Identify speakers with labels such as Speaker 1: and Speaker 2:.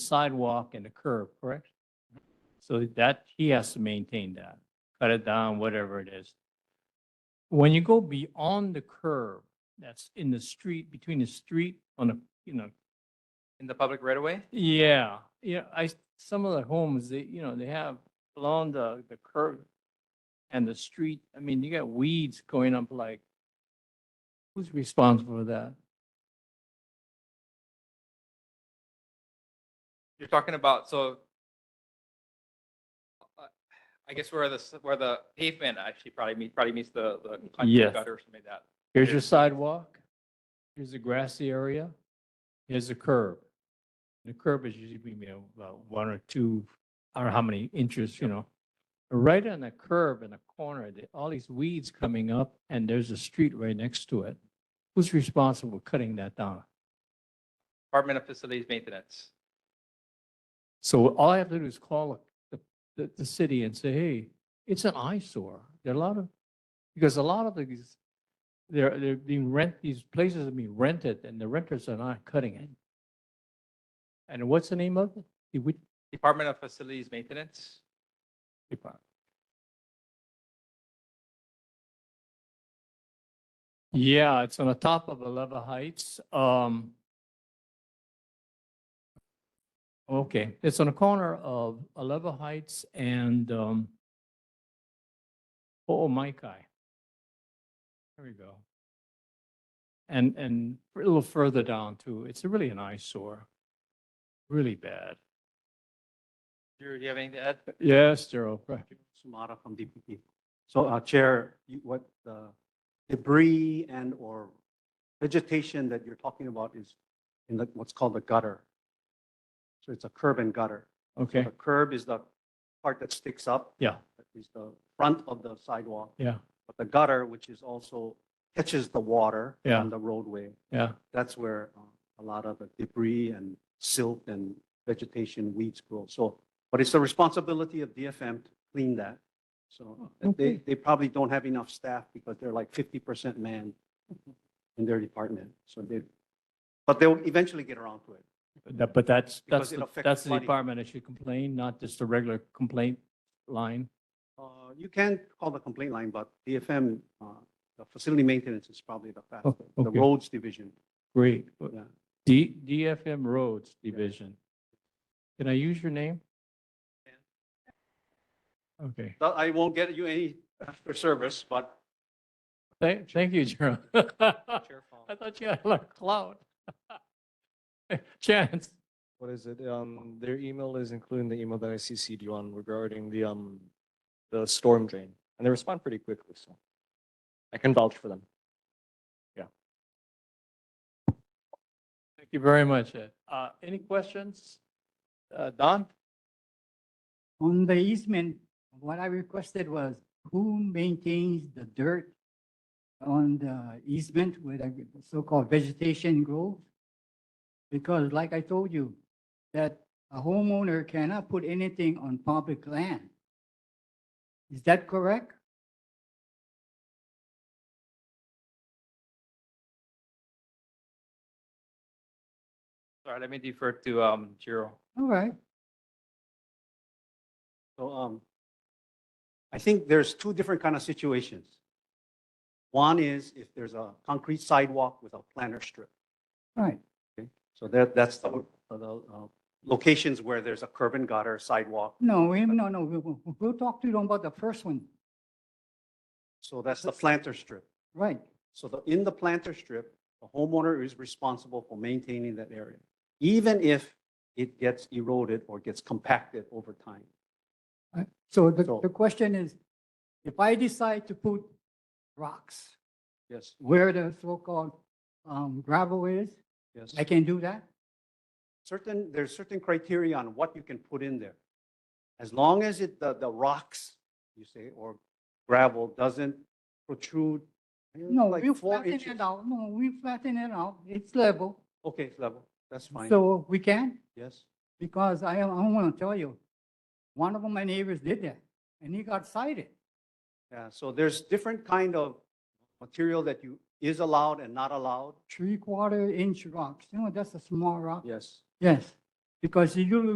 Speaker 1: sidewalk and the curb, correct? So that, he has to maintain that, cut it down, whatever it is. When you go beyond the curb, that's in the street, between the street on the, you know,
Speaker 2: in the public right away.
Speaker 1: yeah, yeah, I, some of the homes, they, you know, they have along the, the curb and the street, I mean, you got weeds going up like, who's responsible for that?
Speaker 2: You're talking about, so uh, I guess where the, s- where the pavement actually probably meets, probably meets the, the concrete
Speaker 1: Yes.
Speaker 2: gutter or something like that.
Speaker 1: Here's your sidewalk, here's the grassy area, here's the curb. The curb is usually maybe about one or two, I don't know how many inches, you know. Right on the curb in the corner, the- all these weeds coming up and there's a street right next to it. Who's responsible for cutting that down?
Speaker 2: Department of Facilities Maintenance.
Speaker 1: So all I have to do is call the, the, the city and say, hey, it's an eyesore. There are a lot of, because a lot of these, they're, they're being rent, these places are being rented and the renters are not cutting it. And what's the name of it? The which
Speaker 2: Department of Facilities Maintenance.
Speaker 1: department? Yeah, it's on the top of Aleva Heights. Um. Okay, it's on the corner of Aleva Heights and, um, oh, my guy. There we go. And, and a little further down too. It's really an eyesore. Really bad.
Speaker 2: Drew, do you have anything to add?
Speaker 1: Yes, Daryl, right.
Speaker 3: Sumata from DPP. So, uh, Chair, you- what the debris and/or vegetation that you're talking about is in the, what's called the gutter. So it's a curb and gutter.
Speaker 1: okay,
Speaker 3: The curb is the part that sticks up.
Speaker 1: Yeah.
Speaker 3: That is the front of the sidewalk.
Speaker 1: yeah,
Speaker 3: But the gutter, which is also catches the water
Speaker 1: Yeah.
Speaker 3: on the roadway,
Speaker 1: yeah.
Speaker 3: that's where uh, a lot of the debris and silt and vegetation weeds grow. So, but it's the responsibility of DFM to clean that. So and they,
Speaker 1: Oh, Okay.
Speaker 3: they probably don't have enough staff because they're like fifty percent man in their department. So they, but they'll eventually get around to it.
Speaker 1: That, but that's, that's,
Speaker 3: Because it
Speaker 1: the-
Speaker 3: affects
Speaker 1: that's the
Speaker 3: flooding.
Speaker 1: department that should complain, not just the regular complaint line.
Speaker 3: Uh, You can call the complaint line, but DFM, uh, the facility maintenance is probably the fastest. The
Speaker 1: Oh, okay.
Speaker 3: roads division,
Speaker 1: Great.
Speaker 3: yeah.
Speaker 1: D, DFM Roads Division. Can I use your name? Okay.
Speaker 3: But I won't get you any after service, but
Speaker 1: Thank, thank you, Jerome. I
Speaker 2: Chair Fong.
Speaker 1: thought you had a lot of clout. Chance.
Speaker 4: what is it? Um, their email is including the email that I CC'd you on regarding the, um, the storm drain. And they respond pretty quickly, so I can vouch for them.
Speaker 1: Thank you very much, Ed. Uh, any questions? Uh, Don?
Speaker 5: On the easement, what I requested was who maintains the dirt on the easement with a so-called vegetation grove? Because like I told you, that a homeowner cannot put anything on public land. Is that correct?
Speaker 2: Sorry, let me defer to, um, Jiro.
Speaker 5: All right.
Speaker 3: So um, I think there's two different kind of situations. One is if there's a concrete sidewalk with a planter strip.
Speaker 5: Right.
Speaker 3: So that, that's the, the uh, locations where there's a curb and gutter sidewalk.
Speaker 5: No, we, no, no, we- we- we'll talk to them about the first one.
Speaker 3: So that's the planter strip.
Speaker 5: Right.
Speaker 3: So the, in the planter strip, the homeowner is responsible for maintaining that area, even if it gets eroded or gets compacted over time.
Speaker 5: Right. So the,
Speaker 3: So-
Speaker 5: the question is, if I decide to put rocks
Speaker 3: Yes,
Speaker 5: where the so-called um, gravel is,
Speaker 3: yes.
Speaker 5: I can do that?
Speaker 3: certain, there's certain criteria on what you can put in there. As long as it, the, the rocks, you say, or gravel doesn't protrude. you know,
Speaker 5: No,
Speaker 3: like
Speaker 5: we
Speaker 3: four
Speaker 5: flatten
Speaker 3: inches.
Speaker 5: it out, no, we flatten it out, it's level,
Speaker 3: Okay, it's level, that's fine,
Speaker 5: so we can,
Speaker 3: yes.
Speaker 5: because I, I want to tell you, one of my neighbors did that, and he got cited.
Speaker 3: Yeah, so there's different kind of material that you, is allowed and not allowed.
Speaker 5: Three-quarter inch rocks, you know, that's a small rock.
Speaker 3: Yes.
Speaker 5: Yes, Because you